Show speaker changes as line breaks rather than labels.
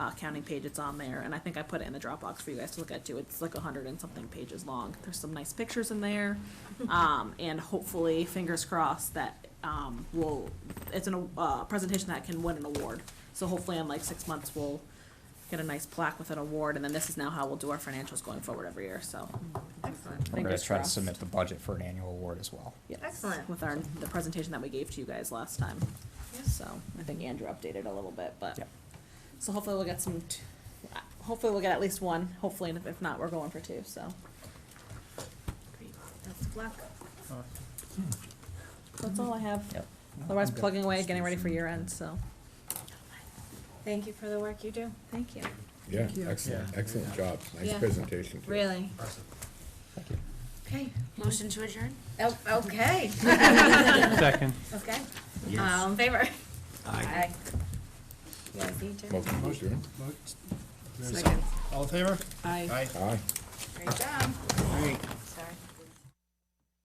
not uh, counting page, it's on there, and I think I put it in the Dropbox for you guys to look at too. It's like a hundred and something pages long. There's some nice pictures in there, um, and hopefully, fingers crossed that um, we'll. It's an uh, presentation that can win an award. So hopefully, in like six months, we'll get a nice plaque with an award, and then this is now how we'll do our financials going forward every year. So
Excellent.
We're gonna
fingers
try to
crossed.
submit the budget for an annual award as well.
Yes.
Excellent.
With our, the presentation that we gave to you guys last time.
Yeah.
So I think Andrew updated a little bit, but,
Yep.
so hopefully we'll get some, t- uh, hopefully we'll get at least one, hopefully, and if- if not, we're going for two, so.
Great. Best of luck.
That's all I have.
Yep.
Otherwise, plugging away, getting ready for year end, so,
Thank you for the work you do.
thank you.
Yeah, excellent,
Yeah.
excellent job. Nice
Yeah.
presentation. too.
Really.
Thank you.
Okay.
Motion to adjourn?
Oh, okay.
Second.
Okay. All in favor? Aye. You guys need to.
Motion to adjourn.
Vote.
Second.
All in favor?
Aye.
Great job.
Aye.